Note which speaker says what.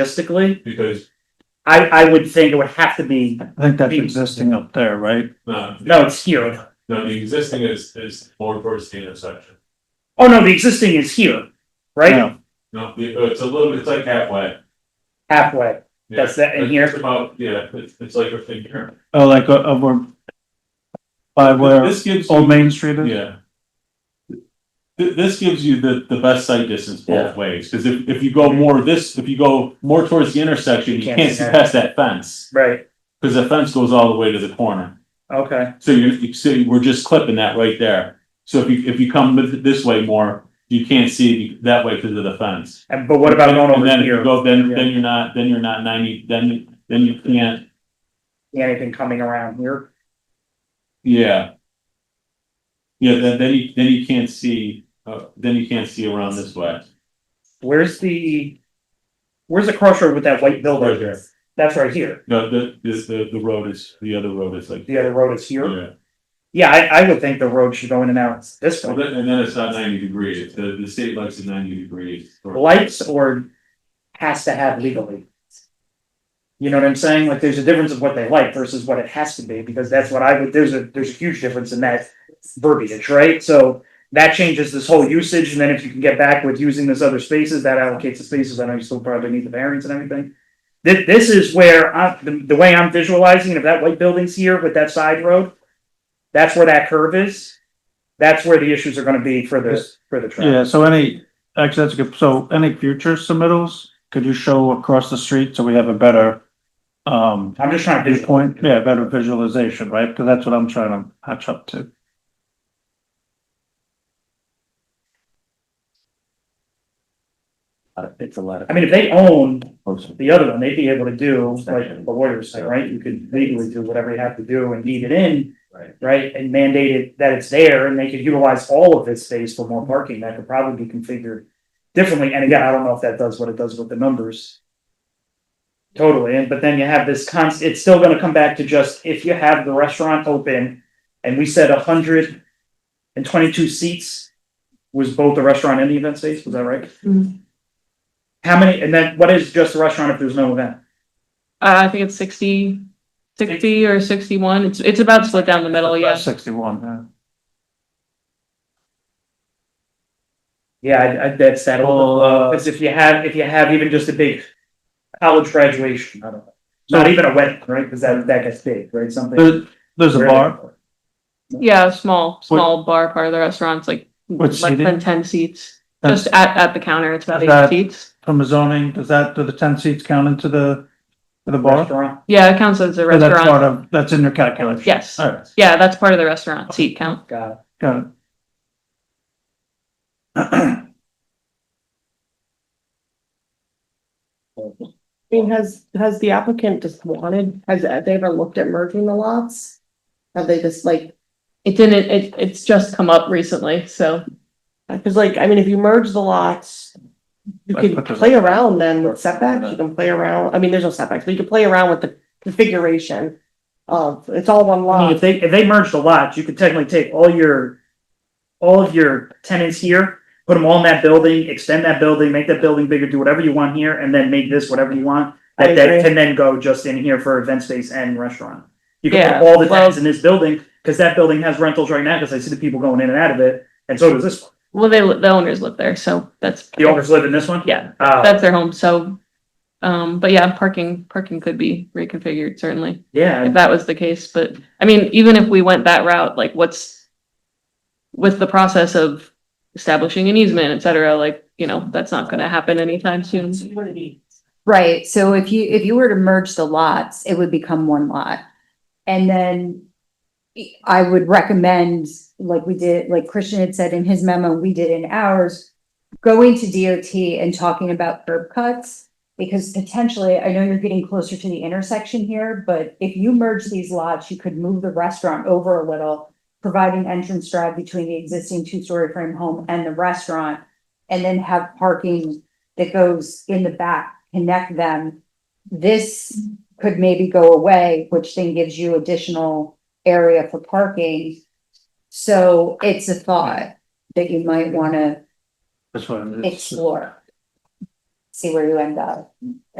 Speaker 1: logistically,
Speaker 2: because,
Speaker 1: I, I would think it would have to be,
Speaker 3: I think that's
Speaker 1: Beams.
Speaker 3: existing up there, right?
Speaker 2: no,
Speaker 1: no, it's here.
Speaker 2: no, the existing is, is more towards the intersection.
Speaker 1: Oh, no, the existing is here, right?
Speaker 3: Yeah.
Speaker 2: No, the- uh, it's a little, it's like halfway.
Speaker 1: Halfway.
Speaker 2: Yeah.
Speaker 1: That's that in
Speaker 2: It's
Speaker 1: here?
Speaker 2: About, yeah, it's, it's like a finger.
Speaker 3: Oh, like uh, over by where
Speaker 2: This gives
Speaker 3: Old
Speaker 2: you,
Speaker 3: Main Street is?
Speaker 2: yeah. Th- this gives you the, the best sight distance
Speaker 1: Yeah.
Speaker 2: both ways, because if, if you go more this, if you go more towards the intersection,
Speaker 1: You
Speaker 2: you
Speaker 1: can't
Speaker 2: can't
Speaker 1: see
Speaker 2: see
Speaker 1: that.
Speaker 2: past that fence.
Speaker 1: Right,
Speaker 2: Because the fence goes all the way to the corner.
Speaker 1: okay,
Speaker 2: So you're, you- so you- we're just clipping that right there. So if you, if you come with- this way more, you can't see that way because of the fence.
Speaker 1: and, but what about going
Speaker 2: And
Speaker 1: over
Speaker 2: then if
Speaker 1: here?
Speaker 2: you go, then, then you're not, then you're not ninety, then, then you can't,
Speaker 1: Anything coming around here?
Speaker 2: yeah. Yeah, then, then you, then you can't see, uh, then you can't see around this way.
Speaker 1: Where's the, where's the crossroad with that white building?
Speaker 2: Right here.
Speaker 1: That's right here.
Speaker 2: No, the, this, the, the road is, the other road is like.
Speaker 1: The other road is here.
Speaker 2: Yeah.
Speaker 1: Yeah, I, I would think the road should go in and out this
Speaker 2: Well,
Speaker 1: way.
Speaker 2: then- And then it's not ninety degrees. The, the state likes it ninety degrees.
Speaker 1: Lights or has to have legally. You know what I'm saying? Like, there's a difference of what they like versus what it has to be, because that's what I would, there's a, there's a huge difference in that verbiage, right? So that changes this whole usage, and then if you can get back with using this other spaces, that allocates the spaces, I know you still probably need the variance and everything. This, this is where I, the, the way I'm visualizing, it, if that white building's here with that side road, that's where that curve is. That's where the issues are gonna be for this, for the traffic.
Speaker 3: Yeah, so any, actually, that's good. So any future submittals, could you show across the street so we have a better um
Speaker 1: I'm just trying to visualize.
Speaker 3: viewpoint? Yeah, better visualization, right? Because that's what I'm trying to hatch up to.
Speaker 4: It's a lot of.
Speaker 1: I mean, if they own
Speaker 4: folks.
Speaker 1: the other one, they'd be able to do like the Warriors thing, right? You could legally do whatever you have to do and deed it in.
Speaker 4: Right.
Speaker 1: Right, and mandate it that it's there and they could utilize all of this space for more parking. That could probably be configured differently. And again, I don't know if that does what it does with the numbers. Totally, and but then you have this const, it's still gonna come back to just if you have the restaurant open and we said hundred and twenty-two seats was both the restaurant and the event space, was that right? How many, and then what is just a restaurant if there's no event?
Speaker 5: Uh, I think it's sixty, sixty or sixty-one. It's, it's about split down the middle, Oh, yeah.
Speaker 3: Sixty-one, yeah.
Speaker 1: Yeah, I, I, that's that.
Speaker 3: Well, uh,
Speaker 1: Because if you have, if you have even just a big college graduation, I don't know. Not even a wedding, right? Because that, that gets big, right? Something.
Speaker 3: there, there's a bar
Speaker 5: Yeah, small, small bar part of the restaurant's like
Speaker 3: What
Speaker 5: less
Speaker 3: seating?
Speaker 5: than ten seats.
Speaker 3: That's-
Speaker 5: Just at, at the counter, it's about
Speaker 3: Is that-
Speaker 5: eight seats.
Speaker 3: from the zoning. Does that, do the ten seats count into the, to the bar?
Speaker 1: Restaurant.
Speaker 5: Yeah, it counts as a
Speaker 3: Or Oh, That's part
Speaker 5: restaurant.
Speaker 3: of, that's in your calculation?
Speaker 5: Yes.
Speaker 3: All right,
Speaker 5: Yeah, that's part of the restaurant seat count.
Speaker 1: Got it.
Speaker 3: got it.
Speaker 6: I mean, has, has the applicant just wanted, has they ever looked at merging the lots? Have they just like,
Speaker 5: It didn't, it, it's just come up recently, so.
Speaker 6: cause like, I mean, if you merge the lots. You
Speaker 3: Like,
Speaker 6: can
Speaker 3: what does-
Speaker 6: play around then with setbacks, you can play around, I mean, there's no setbacks, but you can play around with the configuration. Of, it's all one
Speaker 1: I mean, if
Speaker 6: lot,
Speaker 1: they, if they merged a lot, you could technically take all your, all of your tenants here, put them all in that building, extend that building, make that building bigger, do whatever you want here, and then make this whatever you want.
Speaker 6: I
Speaker 1: That, that
Speaker 6: agree.
Speaker 1: can then go just in here for event space and restaurant. You can
Speaker 5: Yeah,
Speaker 1: put all the
Speaker 5: well-
Speaker 1: tenants in this building, because that building has rentals right now, because I see the people going in and out of it, and so does this one.
Speaker 5: Well, they, li- the owners live there, so that's.
Speaker 1: The owners live in this one?
Speaker 5: Yeah,
Speaker 1: Uh,
Speaker 5: that's their home, so. Um, but yeah, parking, parking could be reconfigured, certainly.
Speaker 1: yeah,
Speaker 5: if
Speaker 1: and
Speaker 5: that was the case, but I mean, even if we went that route, like what's with the process of establishing an easement, et cetera, like, you know, that's not gonna happen anytime soon.
Speaker 7: Right, so if you, if you were to merge the lots, it would become one lot. And then I would recommend, like we did, like Christian had said in his memo, we did in ours, going to DOT and talking about curb cuts. Because potentially, I know you're getting closer to the intersection here, but if you merge these lots, you could move the restaurant over a little, provide an entrance drive between the existing two-story frame home and the restaurant, and then have parking that goes in the back, connect them. This could maybe go away, which then gives you additional area for parking. So it's a thought that you might wanna
Speaker 3: That's what it is.
Speaker 7: explore. see where you end up.